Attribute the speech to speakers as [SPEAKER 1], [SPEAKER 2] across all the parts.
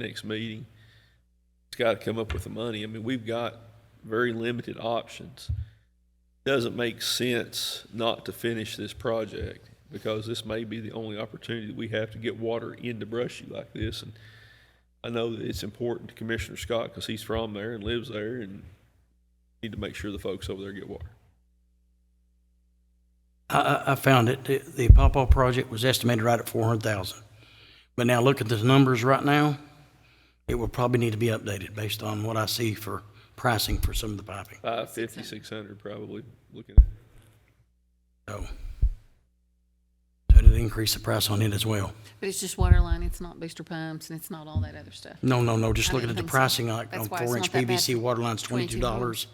[SPEAKER 1] next meeting. It's got to come up with the money. I mean, we've got very limited options. Doesn't make sense not to finish this project because this may be the only opportunity that we have to get water into Brushy like this. And I know that it's important to Commissioner Scott because he's from there and lives there and need to make sure the folks over there get water.
[SPEAKER 2] I, I, I found it, the, the Pawpaw project was estimated right at four hundred thousand. But now look at the numbers right now, it will probably need to be updated based on what I see for pricing for some of the piping,
[SPEAKER 1] Five fifty, six hundred probably looking.
[SPEAKER 2] so. So it'd increase the price on it as well.
[SPEAKER 3] But it's just water line, it's not booster pumps, and it's not all that other stuff.
[SPEAKER 2] No, no, no, just
[SPEAKER 3] I
[SPEAKER 2] looking at
[SPEAKER 3] didn't
[SPEAKER 2] the
[SPEAKER 3] think so.
[SPEAKER 2] pricing on,
[SPEAKER 3] That's
[SPEAKER 2] on
[SPEAKER 3] why it's
[SPEAKER 2] four inch
[SPEAKER 3] not that bad.
[SPEAKER 2] PVC water line's twenty-two
[SPEAKER 3] $22.
[SPEAKER 2] dollars,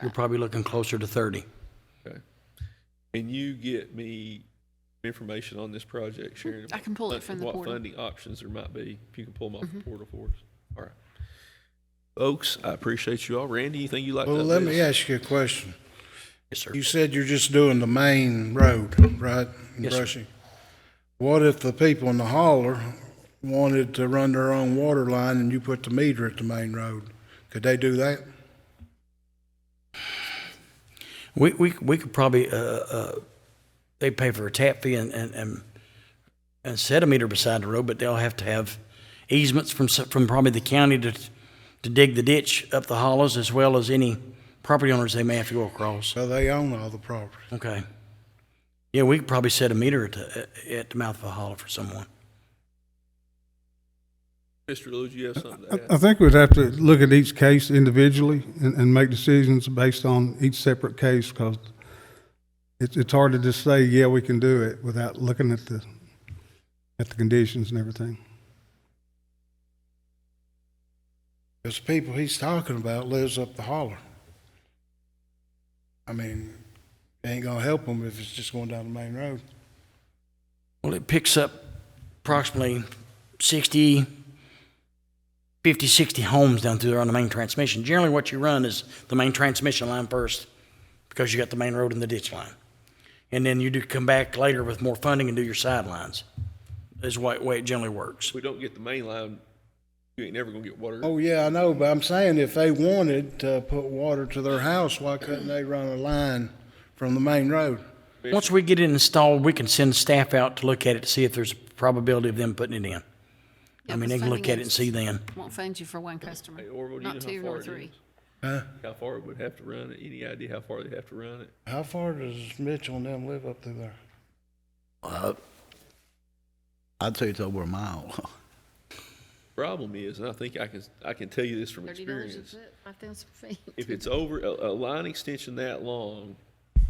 [SPEAKER 2] you're probably looking closer to thirty.
[SPEAKER 1] Okay. Can you get me information on this project, Sharon?
[SPEAKER 3] I can pull it
[SPEAKER 1] about
[SPEAKER 3] from the
[SPEAKER 1] What
[SPEAKER 3] portal. Mm-hmm.
[SPEAKER 1] funding options there might be, if you can pull them off the portal for us. All right. Folks, I appreciate you all. Randy, anything you'd like to
[SPEAKER 4] Well,
[SPEAKER 1] add?
[SPEAKER 4] let me ask you a question.
[SPEAKER 2] Yes, sir.
[SPEAKER 4] You said you're just doing the main road, right? in
[SPEAKER 2] Yes, sir.
[SPEAKER 4] Brushy. What if the people in the holler wanted to run their own water line and you put the meter at the main road? Could they do that?
[SPEAKER 2] We, we, we could probably, uh, uh, they pay for a tap fee and, and, and, and set a meter beside the road, but they'll have to have easements from, s- from probably the county to, to dig the ditch up the hollows as well as any property owners they may have to go across.
[SPEAKER 4] So they own all the property.
[SPEAKER 2] Okay. Yeah, we could probably set a meter at the, at the mouth of a hollow for someone.
[SPEAKER 1] Mr. Lewis, you have something
[SPEAKER 4] Uh,
[SPEAKER 1] to
[SPEAKER 5] I I
[SPEAKER 1] add?
[SPEAKER 5] think we'd have to look at each case individually and, and make decisions based on each separate case, because it's, it's hard to just say, yeah, we can do it, without looking at the, at the conditions and everything.
[SPEAKER 4] Because the people he's talking about lives up the holler. I mean, it ain't gonna help them if it's just going down the main road.
[SPEAKER 2] Well, it picks up approximately 60, 50, 60 homes down through there on the main transmission. Generally, what you run is the main transmission line first because you got the main road and the ditch line. And then you do come back later with more funding and do your sidelines, is why, way it generally works.
[SPEAKER 1] If we don't get the main line, you ain't never gonna get water.
[SPEAKER 4] Oh, yeah, I know, but I'm saying if they wanted to put water to their house, why couldn't they run a line from the main road?
[SPEAKER 2] Once we get it installed, we can send staff out to look at it to see if there's a probability of them putting it in. I
[SPEAKER 3] Yeah,
[SPEAKER 2] mean, they can look at it and see then.
[SPEAKER 3] Won't fund you for one customer,
[SPEAKER 1] Hey, Orville, do you
[SPEAKER 3] not
[SPEAKER 1] know how
[SPEAKER 3] two
[SPEAKER 1] far
[SPEAKER 3] nor
[SPEAKER 1] it is?
[SPEAKER 3] three.
[SPEAKER 4] Huh?
[SPEAKER 1] How far it would have to run it? Any idea how far they have to run it?
[SPEAKER 4] How far does Mitchell and them live up through there?
[SPEAKER 6] Uh, I'd say it's over a mile.
[SPEAKER 1] Problem is, and I think I can, I can tell you this from
[SPEAKER 3] Thirty dollars a
[SPEAKER 1] experience.
[SPEAKER 3] foot, five thousand feet.
[SPEAKER 1] if it's over, a, a line extension that long,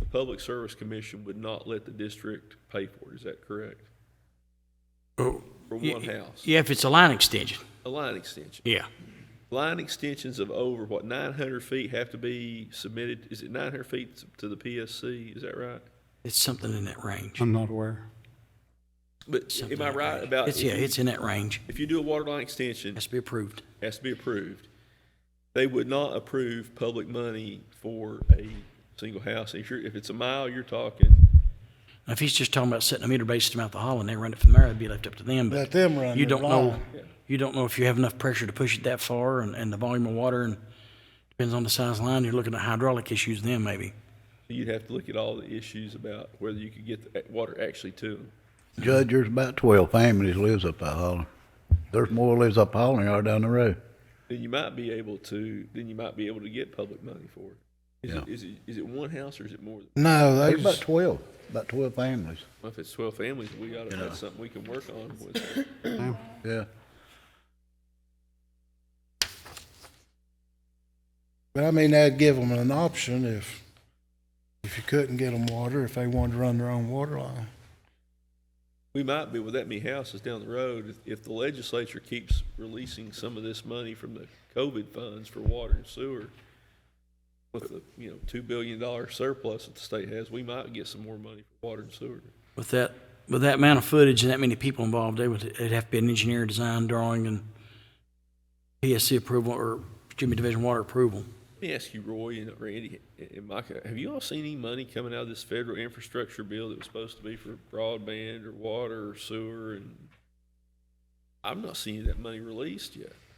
[SPEAKER 1] the Public Service Commission would not let the district pay for it, is that correct?
[SPEAKER 2] For
[SPEAKER 1] For one house,
[SPEAKER 2] Yeah, if it's a line extension,
[SPEAKER 1] a line extension.
[SPEAKER 2] yeah.
[SPEAKER 1] Line extensions of over, what, nine hundred feet have to be submitted, is it nine hundred feet to the PSC, is that right?
[SPEAKER 2] It's something in that range.
[SPEAKER 5] I'm not aware.
[SPEAKER 1] But
[SPEAKER 2] Something
[SPEAKER 1] am I
[SPEAKER 2] in that
[SPEAKER 1] right
[SPEAKER 2] range.
[SPEAKER 1] about?
[SPEAKER 2] It's, yeah,
[SPEAKER 1] if you-
[SPEAKER 2] it's in that range.
[SPEAKER 1] If you do a water line extension,
[SPEAKER 2] Has to be approved.
[SPEAKER 1] has to be approved. They would not approve public money for a single house. If you're, if it's a mile, you're talking
[SPEAKER 2] Now, if he's just talking about setting a meter base to mouth the hall and they run it from there, that'd be left up to them. But
[SPEAKER 4] Let them run
[SPEAKER 2] you
[SPEAKER 4] their
[SPEAKER 2] don't know.
[SPEAKER 4] line.
[SPEAKER 2] You don't know if you have enough pressure to push it that far and, and the volume of water and depends on the size of the line. You're looking at hydraulic issues then maybe.
[SPEAKER 1] You'd have to look at all the issues about whether you could get the water actually to them.
[SPEAKER 6] Judge, there's about twelve families lives up that holler. There's more lives up holler than there are down the road.
[SPEAKER 1] Then you might be able to, then you might be able to get public money for it. Is it,
[SPEAKER 6] Yeah.
[SPEAKER 1] is it, is it one house or is it more? than-
[SPEAKER 4] No, they
[SPEAKER 6] There's about
[SPEAKER 4] just,
[SPEAKER 6] twelve, about twelve families,
[SPEAKER 1] Well, if it's twelve families, we gotta,
[SPEAKER 6] Yeah.
[SPEAKER 1] that's something we can work on with.
[SPEAKER 6] yeah.
[SPEAKER 4] but I mean, that'd give them an option if, if you couldn't get them water, if they wanted to run their own water line.
[SPEAKER 1] We might be with that many houses down the road, if, if the legislature keeps releasing some of this money from the COVID funds for water and sewer with the, you know, two billion dollar surplus that the state has, we might get some more money for water and sewer.
[SPEAKER 2] With that with that amount of footage and that many people involved, they would it'd have to be an engineer design drawing and PSC approval or excuse me, division water approval.
[SPEAKER 1] Let me ask you, Roy and Randy and Micah, have you all seen any money coming out of this federal infrastructure bill that was supposed to be for broadband or water or sewer and I'm not seeing that money released yet.